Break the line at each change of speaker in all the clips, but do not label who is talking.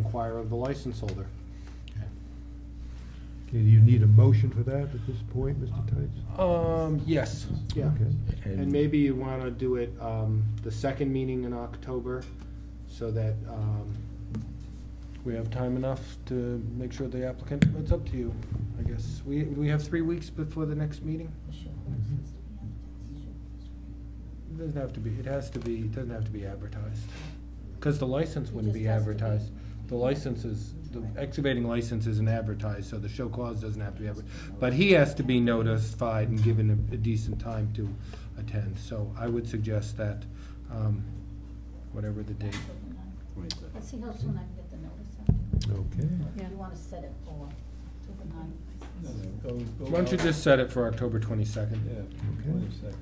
require of the license holder.
Okay, do you need a motion for that at this point, Mr. Tights?
Um, yes.
Yeah.
Okay.
And maybe you want to do it um, the second meeting in October, so that, um,
We have time enough to make sure the applicant, it's up to you, I guess. We, we have three weeks before the next meeting? It doesn't have to be, it has to be, it doesn't have to be advertised. Because the license
It
wouldn't
just
be
has to be.
advertised. The license is, the excavating license isn't advertised, so the show clause doesn't have to be advertised. But he has to be notified and given a a decent time to attend. So I would suggest that, um, whatever the date,
Let's see how soon I can get the notice out.
Okay.
You wanna set it for to the ninth?
why don't you just set it for October twenty-second?
Yeah,
Okay.
wait a second.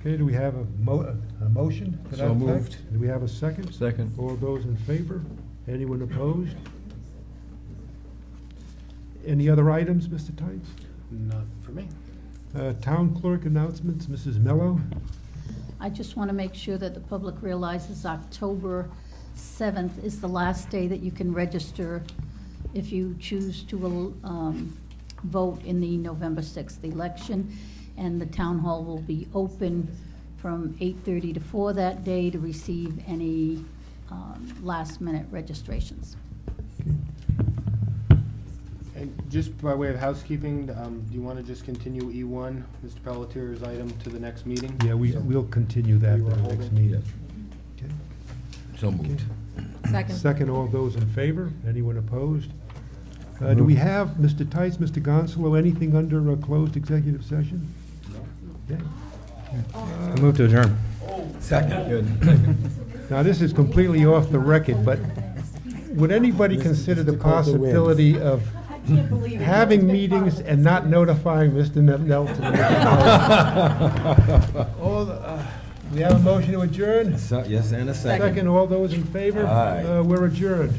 Okay, do we have a mo, a motion for that
So
effect?
moved.
Do we have a second?
Second.
All those in favor? Anyone opposed? Any other items, Mr. Tights?
Not for me.
Uh, Town clerk announcements, Mrs. Mello?
I just want to make sure that the public realizes October 7th is the last day that you can register if you choose to um, vote in the November 6th election. And the town hall will be open from 8:30 to 4 that day to receive any last-minute registrations.
and just by way of housekeeping, um, do you want to just continue E E1, Mr. Pelletier's item, to the next meeting?
Yeah, we,
So-
we'll continue that
We were
at the next
holding.
meeting. Okay.
So moved.
Second, all those in favor? Anyone opposed? Uh, Do we have, Mr. Tice, Mr. Gonzalo, anything under a closed executive session? Okay.
I move to adjourn.
Second.
Now, this is completely off the record, but would anybody consider the possibility of having meetings and not notifying Mr. Nel- Nelson? All the- uh, We have a motion to adjourn?
So- Yes, and a second.
Second, all those in favor?
Aye.
Uh, We're adjourned.